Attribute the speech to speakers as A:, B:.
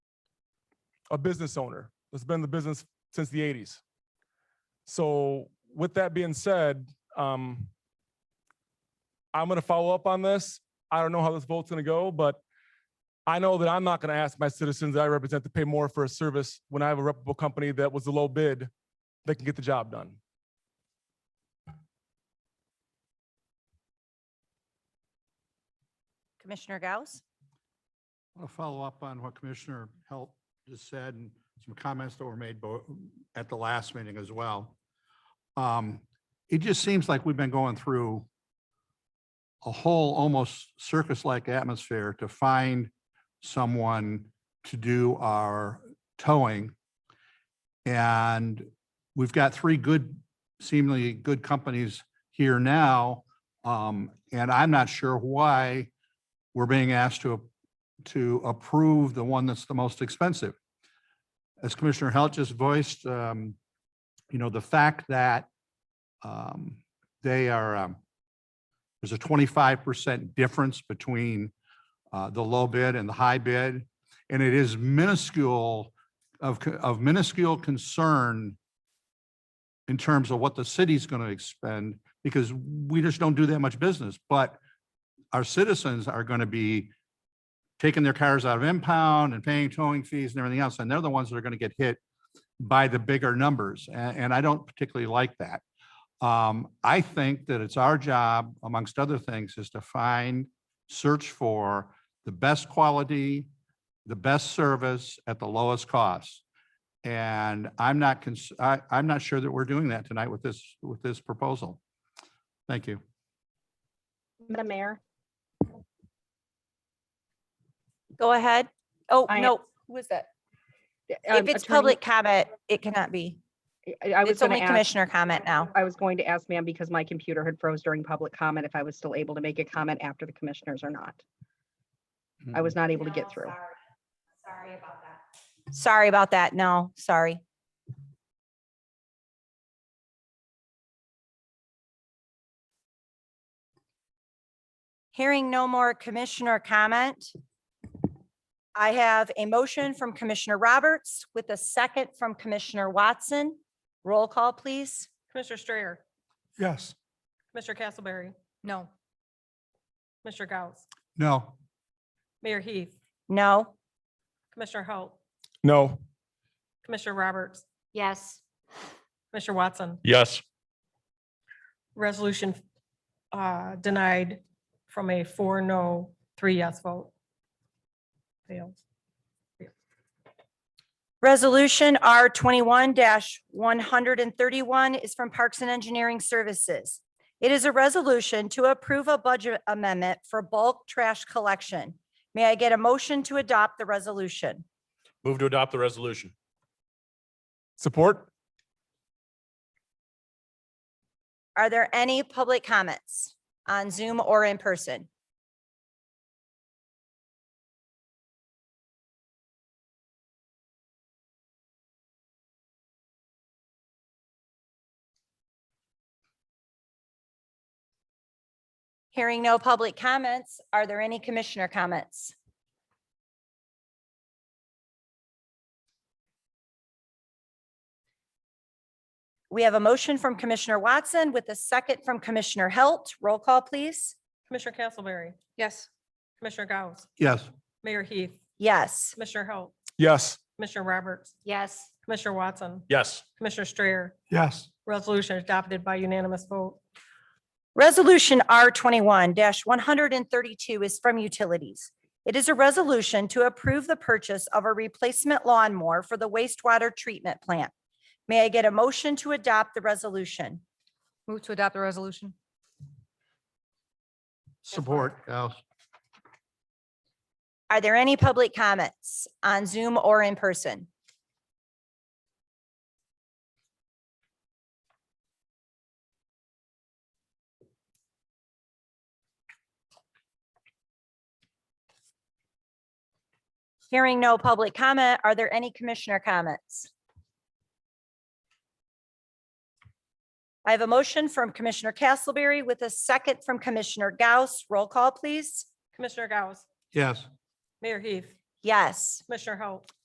A: a business owner that's been in the business since the eighties. So with that being said, um, I'm gonna follow up on this. I don't know how this vote's gonna go, but I know that I'm not gonna ask my citizens that I represent to pay more for a service when I have a reputable company that was the low bid that can get the job done.
B: Commissioner Gauss,
C: I want to follow up on what Commissioner Helt just said and some comments that were made bo- at the last meeting as well. Um, It just seems like we've been going through a whole almost circus-like atmosphere to find someone to do our towing. And we've got three good, seemingly good companies here now. um, And I'm not sure why we're being asked to to approve the one that's the most expensive. As Commissioner Halt just voiced, um, you know, the fact that um, they are, um, there's a twenty-five percent difference between uh, the low bid and the high bid. And it is minuscule of, co- of minuscule concern in terms of what the city's going to expend, because we just don't do that much business. But our citizens are going to be taking their cars out of impound and paying towing fees and everything else, and they're the ones that are going to get hit by the bigger numbers, a- and, I don't particularly like that. Um, I think that it's our job, amongst other things, is to find, search for the best quality, the best service at the lowest cost. And I'm not, cons- I, I'm not sure that we're doing that tonight with this, with this proposal. Thank you.
D: Madam Mayor,
B: go ahead. Oh,
D: I am-
B: no, who is that?
D: um,
B: If it's
D: Attorney-
B: public comment, it cannot be.
D: I- I was
B: It's
D: going
B: only
D: to ask,
B: commissioner comment now.
D: I was going to ask ma'am because my computer had froze during public comment if I was still able to make a comment after the commissioners or not. I was not able to get through.
E: Sorry about that.
B: Sorry about that. No, sorry. Hearing no more commissioner comment. I have a motion from Commissioner Roberts with a second from Commissioner Watson. Roll call, please.
F: Commissioner Strayer,
C: Yes.
F: Commissioner Castleberry,
B: No.
F: Commissioner Gauss,
C: No.
F: Mayor Heath,
B: No.
F: Commissioner Halt,
A: No.
F: Commissioner Roberts,
E: Yes.
F: Commissioner Watson.
G: Yes.
F: Resolution uh, denied from a four no, three yes vote. Failed.
B: Resolution R twenty-one one hundred and thirty-one is from Parks and Engineering Services. It is a resolution to approve a budget amendment for bulk trash collection. May I get a motion to adopt the resolution?
G: Move to adopt the resolution.
A: Support?
B: Are there any public comments on Zoom or in person? Hearing no public comments, are there any commissioner comments? We have a motion from Commissioner Watson with a second from Commissioner Halt. Roll call, please.
F: Commissioner Castleberry,
E: Yes.
F: Commissioner Gauss,
C: Yes.
F: Mayor Heath,
B: Yes.
F: Commissioner Halt,
A: Yes.
F: Commissioner Roberts,
E: Yes.
F: Commissioner Watson,
G: Yes.
F: Commissioner Strayer.
C: Yes.
F: Resolution adopted by unanimous vote.
B: Resolution R twenty-one one hundred and thirty-two is from Utilities. It is a resolution to approve the purchase of a replacement lawnmower for the wastewater treatment plant. May I get a motion to adopt the resolution?
H: Move to adopt the resolution?
C: Support, Gauss.
B: Are there any public comments on Zoom or in person? Hearing no public comment, are there any commissioner comments? I have a motion from Commissioner Castleberry with a second from Commissioner Gauss. Roll call, please.
F: Commissioner Gauss,
C: Yes.
F: Mayor Heath,
B: Yes.
F: Commissioner Halt,